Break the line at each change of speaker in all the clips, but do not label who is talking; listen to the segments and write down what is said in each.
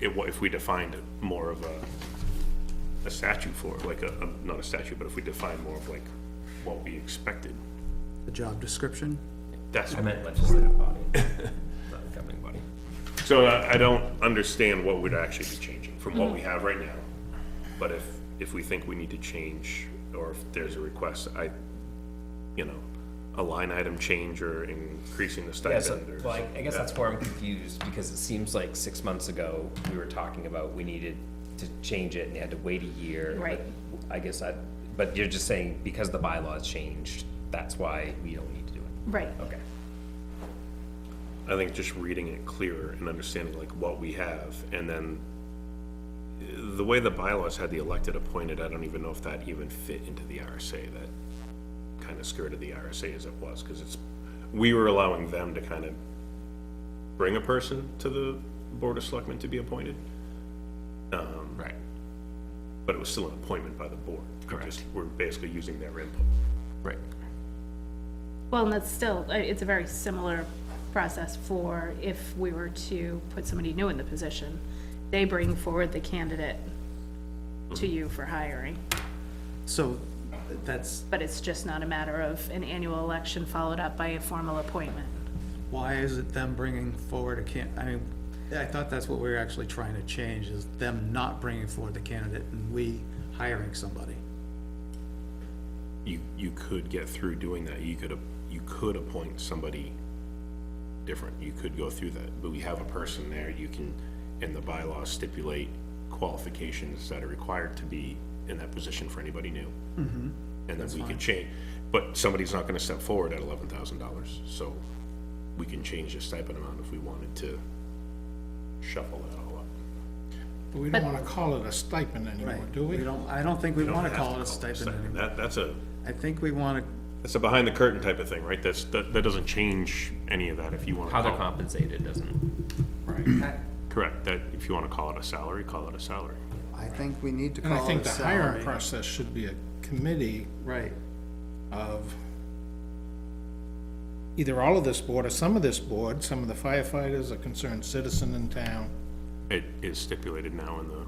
it, wa- if we defined more of a, a statute for, it, like a, a- not a statute, but if we defined more of like what we expected,
the job description.
that's,
I meant legislative body, not the governing body.
so I, I don't understand what would actually be changing from what we have right now. But if, if we think we need to change, or if there's a request, I, you know, a line item change or increasing the
Yeah, so-
stipend or.
Well, I, I guess that's where I'm confused, because it seems like six months ago, we were talking about we needed to change it and you had to wait a year. but
Right.
I guess I, but you're just saying because the bylaws changed, that's why we don't need to do it.
Right.
Okay.
I think just reading it clearer and understanding like what we have, and then uh, the way the bylaws had the elected appointed, I don't even know if that even fit into the RSA, that kind of skirted the RSA as it was, because it's, we were allowing them to kind of bring a person to the Board of Selectmen to be appointed,
Right.
but it was still an appointment by the board. We
Correct.
just We're basically using their input.
Right.
Well, and that's still, uh, it's a very similar process for if we were to put somebody new in the position. They bring forward the candidate to you for hiring,
So that's
but it's just not a matter of an annual election followed up by a formal appointment.
why is it them bringing forward a can, I mean, I thought that's what we were actually trying to change is them not bringing forward the candidate and we hiring somebody.
you, you could get through doing that, you could, you could appoint somebody different, you could go through that, but we have a person there, you can, in the bylaws stipulate qualifications that are required to be in that position for anybody new. And then we can change, but somebody's not gonna step forward at eleven thousand dollars, so we can change the stipend amount if we wanted to shuffle that all up.
But we don't want to call it a stipend anymore,
Right,
do
we
we?
don't, I don't think we
You don't
want to
have
call it a stipend anymore.
That, that's a,
I think we want to
that's a behind the curtain type of thing, right? That's, that, that doesn't change any of that if you wanna.
How they're
call it-
compensated doesn't,
Correct, that if you want to call it a salary, call it a salary.
I think we need to
And I
call
think
it a
the hiring
salary.
process should be a committee
Right,
of either all of this board or some of this board, some of the firefighters, a concerned citizen in town,
It is stipulated now in the,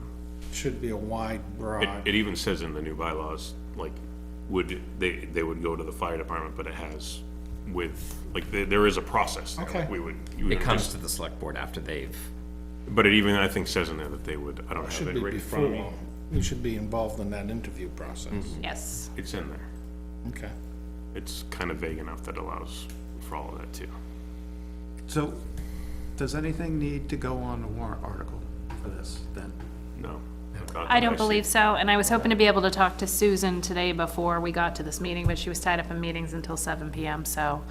should be a wide,
it,
broad,
it even says in the new bylaws, like, would, they, they would go to the fire department, but it has with, like, there, there is a process. there, like,
Okay.
We would. you would
it comes
just-
to the select board after they've,
But it even, I think, says in there that they would, I don't have
should
it
be
right in front of me.
before. We should be involved in that interview process.
Mm-hmm.
Yes.
It's in there.
Okay.
It's kind of vague enough that allows for all of that too.
so does anything need to go on the warrant article for this then?
No.
I don't believe so, and I was hoping to be able to talk to Susan today before we got to this meeting, but she was tied up in meetings until seven PM, so,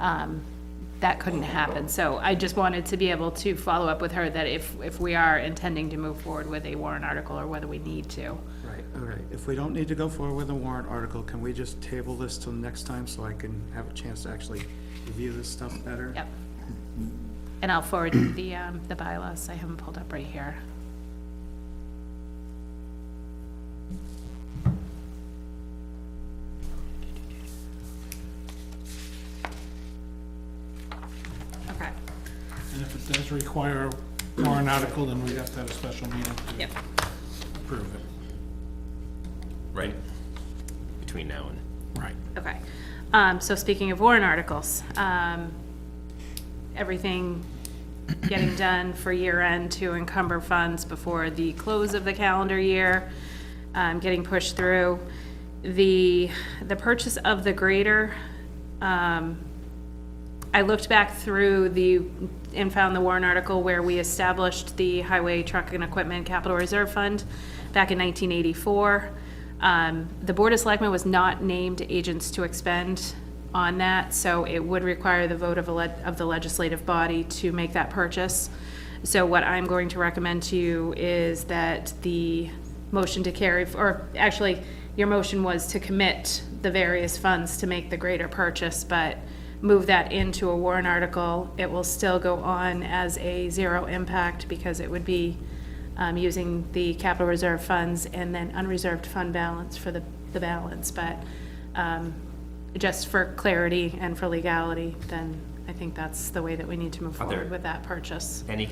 um, that couldn't happen. So I just wanted to be able to follow up with her that if, if we are intending to move forward with a warrant article or whether we need to.
Right, all right, if we don't need to go forward with a warrant article, can we just table this till next time so I can have a chance to actually review this stuff better?
Yep. And I'll forward you the, um, the bylaws. I have them pulled up right here. Okay.
And if it does require a warrant article, then we have to have a special meeting to
Yep.
approve it.
right, between now and.
Right.
Okay. Um, so speaking of warrant articles, um, everything getting done for year end to encumber funds before the close of the calendar year, um, getting pushed through. The, the purchase of the grader, um, I looked back through the, and found the Warren article where we established the Highway Truck and Equipment Capital Reserve Fund back in 1984. Um, The Board of Selectmen was not named agents to expend on that, so it would require the vote of a le- of the legislative body to make that purchase. So what I'm going to recommend to you is that the motion to carry, or actually, your motion was to commit the various funds to make the greater purchase, but move that into a warrant article. It will still go on as a zero impact because it would be um, using the capital reserve funds and then unreserved fund balance for the, the balance. But um, just for clarity and for legality, then I think that's the way that we need to move
there-
forward with that purchase.
Any